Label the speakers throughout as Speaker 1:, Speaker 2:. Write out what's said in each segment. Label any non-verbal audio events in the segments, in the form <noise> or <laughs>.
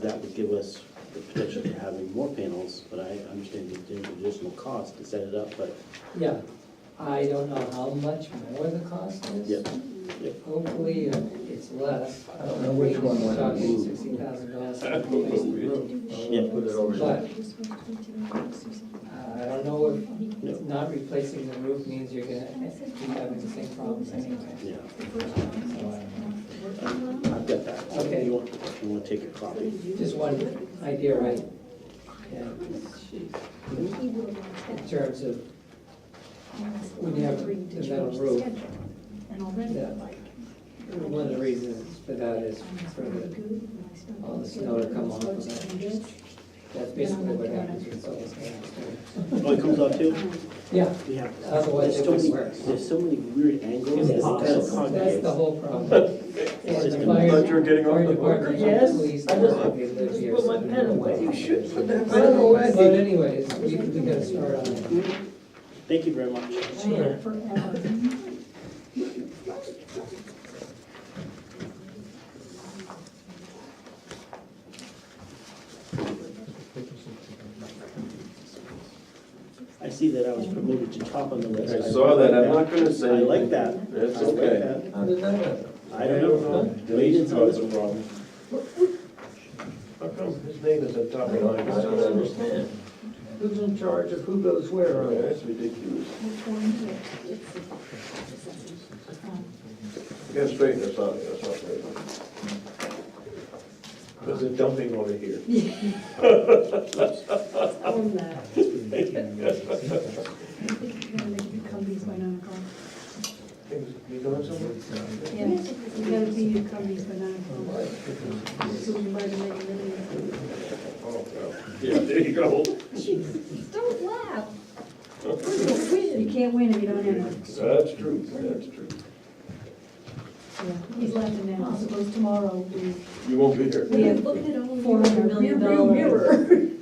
Speaker 1: That would give us the potential for having more panels, but I understand that there's additional cost to set it up, but
Speaker 2: Yeah, I don't know how much more the cost is.
Speaker 1: Yep, yep.
Speaker 2: Hopefully, uh, it's less.
Speaker 3: I don't know which one went up.
Speaker 2: Sixty thousand dollars for replacing the roof.
Speaker 1: Yeah.
Speaker 3: Put it over
Speaker 2: But,
Speaker 3: there.
Speaker 2: uh, I don't know if not replacing the roof means you're gonna keep having the same problems anyway.
Speaker 1: yeah,
Speaker 2: So, uh,
Speaker 1: I've got that.
Speaker 2: Okay.
Speaker 1: You want, you want to take your copy?
Speaker 2: Just one idea, right? Yeah, In terms of,
Speaker 4: When you have the metal roof.
Speaker 2: yeah, one of the reasons for that is for the,
Speaker 4: all the snow to come off of it.
Speaker 2: that's basically what happens with solar panels.
Speaker 1: Oh, it comes out too?
Speaker 2: Yeah,
Speaker 1: We have. There's
Speaker 2: Otherwise, it
Speaker 1: so many-
Speaker 2: wouldn't work.
Speaker 1: There's so many weird angles. It's kind of
Speaker 2: That's
Speaker 1: concave.
Speaker 2: the whole problem.
Speaker 1: It's just
Speaker 2: And the
Speaker 1: gonna-
Speaker 2: fire-
Speaker 5: Thought you were getting off
Speaker 2: fire
Speaker 5: the
Speaker 2: department,
Speaker 6: Yes,
Speaker 2: police,
Speaker 6: I just-
Speaker 2: they live
Speaker 6: just
Speaker 2: here,
Speaker 6: put my
Speaker 2: so they
Speaker 6: pen
Speaker 2: know
Speaker 6: away.
Speaker 2: what
Speaker 6: You should put that
Speaker 2: happens.
Speaker 6: pen away.
Speaker 2: But anyways, we, we gotta start on it.
Speaker 1: Thank you very much.
Speaker 2: Sure.
Speaker 1: I see that I was promoted to top on the list.
Speaker 5: I saw that, I'm not gonna say.
Speaker 1: I like that.
Speaker 5: That's
Speaker 1: I like
Speaker 5: okay.
Speaker 1: that.
Speaker 3: How did that happen?
Speaker 1: I don't know. Waited
Speaker 5: Denise
Speaker 1: until
Speaker 5: caused
Speaker 1: this
Speaker 5: the problem. How come his name is at top
Speaker 6: I
Speaker 5: of the line?
Speaker 6: don't understand. Who's in charge of who goes where on
Speaker 5: Yeah,
Speaker 6: this?
Speaker 5: That's ridiculous.
Speaker 4: um,
Speaker 5: We gotta straighten this out, that's not right. There's a dumping over here. Things, you doing something?
Speaker 4: You gotta be your companies by nine o'clock. So we might have made a million.
Speaker 5: Oh, well. Yeah, there you go.
Speaker 4: Jeez, don't laugh. We're gonna win. You can't win if you don't have one.
Speaker 5: That's true, that's true.
Speaker 4: He's laughing now, I suppose tomorrow we.
Speaker 5: You won't be here. <laughs>
Speaker 4: We have
Speaker 6: Look at all
Speaker 4: four hundred million dollars.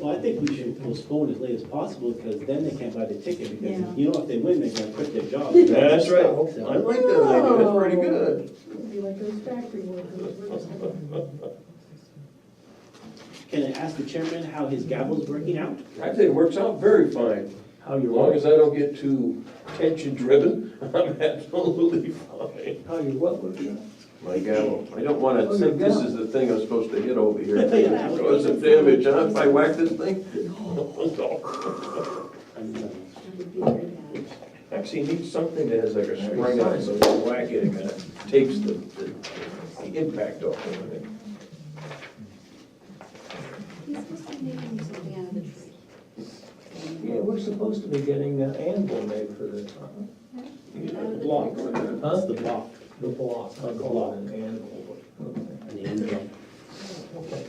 Speaker 1: Well, I think we should postpone as late as possible, because then they can't buy the ticket, because,
Speaker 4: Yeah.
Speaker 1: you know, if they win, they're gonna quit their
Speaker 5: <laughs>
Speaker 1: job.
Speaker 5: That's right. I
Speaker 1: So,
Speaker 5: like that idea, that's pretty good.
Speaker 4: It'll <laughs> be like those factory workers. We're just gonna-
Speaker 1: Can I ask the chairman how his gavel's working out?
Speaker 5: Actually, it works out very fine.
Speaker 1: How
Speaker 5: As long as I don't get too tension-driven, <laughs> I'm absolutely fine.
Speaker 6: How you what would you?
Speaker 5: My gavel. I don't want
Speaker 6: Oh,
Speaker 5: to think
Speaker 6: your
Speaker 5: this is the thing I'm supposed to hit over
Speaker 6: <laughs>
Speaker 5: here.
Speaker 1: Yeah.
Speaker 5: Cause some damage, huh? If I whack this thing? It's <laughs> Actually, you need something that has like a spring on it, so when you whack it, it kind of takes the, the the impact off of it.
Speaker 4: He's supposed to be making something out of the tree.
Speaker 6: Yeah, we're supposed to be getting an anvil made for this, huh?
Speaker 5: You know, the block.
Speaker 1: That's the block.
Speaker 6: the block, I call it an anvil. Okay,
Speaker 1: on the end zone.
Speaker 6: Okay.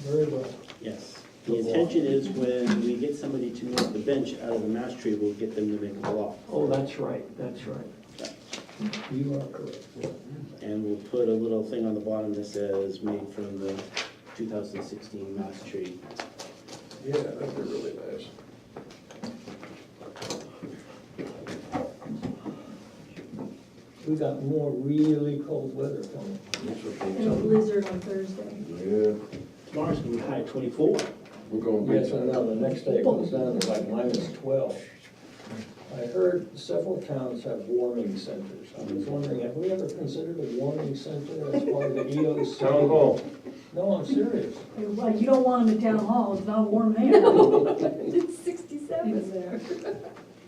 Speaker 6: Very well.
Speaker 1: Yes. The intention is when we get somebody to move the bench out of the mass tree, we'll get them to make a block.
Speaker 6: Oh, that's right, that's right. You are correct.
Speaker 1: And we'll put a little thing on the bottom that says, made from the 2016 mass tree.
Speaker 5: Yeah, that'd be really nice.
Speaker 6: We got more really cold weather coming.
Speaker 5: That's what they
Speaker 4: And a
Speaker 5: tell me.
Speaker 4: blizzard on Thursday.
Speaker 5: Yeah,
Speaker 1: Tomorrow's gonna be high 24.
Speaker 5: we're going big
Speaker 6: Yes,
Speaker 5: time.
Speaker 6: I know, the next day it goes down to like minus twelve. I heard several towns have warming centers. I was wondering, have we ever considered a warming center as part of the EOC?
Speaker 5: Town hall.
Speaker 6: No, I'm serious.
Speaker 4: Well, you don't want him in town hall, it's not warm there. <laughs> It's sixty-seven there.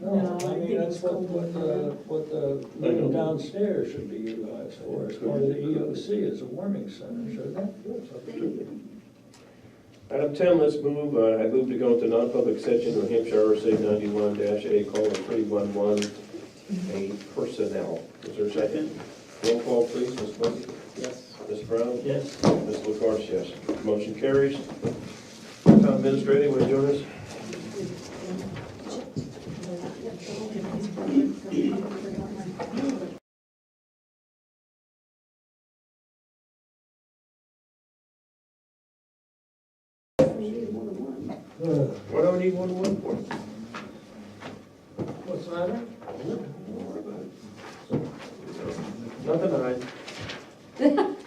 Speaker 4: No,
Speaker 6: No,
Speaker 4: I
Speaker 6: I
Speaker 4: think
Speaker 6: mean, that's
Speaker 4: it's
Speaker 6: what,
Speaker 4: cold.
Speaker 6: what, the- what the
Speaker 5: I know.
Speaker 6: meeting downstairs should be utilized for, as part of the E EOC, as a warming center, shouldn't it?
Speaker 5: Item ten, let's move, uh, I move to go into non-public session, New Hampshire RSA ninety-one A, colon, three one one, A personnel. Is there a second? Roll call, please, Ms. Buck,
Speaker 1: Yes.
Speaker 5: Ms. Brown,
Speaker 6: Yes.
Speaker 5: Ms. LaCarge, yes. Motion carries. Town administrator, will you join us? What do I need one to one for?
Speaker 6: What's the matter?
Speaker 5: Nothing, I.